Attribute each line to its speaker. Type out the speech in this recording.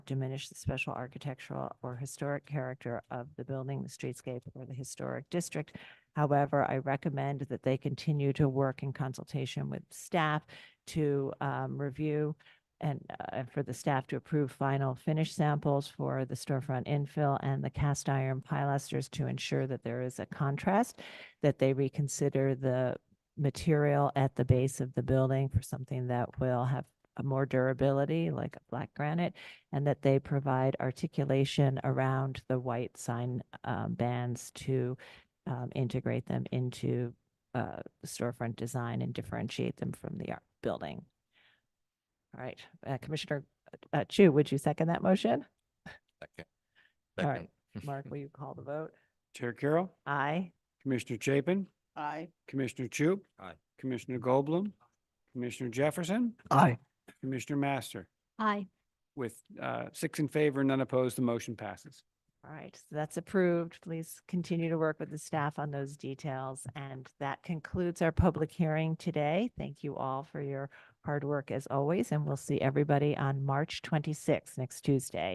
Speaker 1: diminish the special architectural or historic character of the building, the streetscape, or the historic district. However, I recommend that they continue to work in consultation with staff to um, review and uh, for the staff to approve final finish samples for the storefront infill and the cast iron pilasters to ensure that there is a contrast, that they reconsider the material at the base of the building for something that will have a more durability, like a black granite, and that they provide articulation around the white sign um, bands to um, integrate them into uh, storefront design and differentiate them from the art building. All right, uh, Commissioner uh, Chu, would you second that motion?
Speaker 2: Second.
Speaker 1: All
Speaker 2: Second.
Speaker 1: right, Mark, will you call the vote?
Speaker 3: Chair Carroll,
Speaker 1: Aye.
Speaker 3: Commissioner Chapin,
Speaker 4: Aye.
Speaker 3: Commissioner Chu.
Speaker 2: Aye.
Speaker 3: Commissioner Goldblum, Commissioner Jefferson,
Speaker 4: Aye.
Speaker 3: Commissioner Master.
Speaker 5: Aye.
Speaker 3: With uh, six in favor, none opposed, the motion passes.
Speaker 1: All right, so that's approved. Please continue to work with the staff on those details. And that concludes our public hearing today. Thank you all for your hard work as always, and we'll see everybody on March 26th, next Tuesday.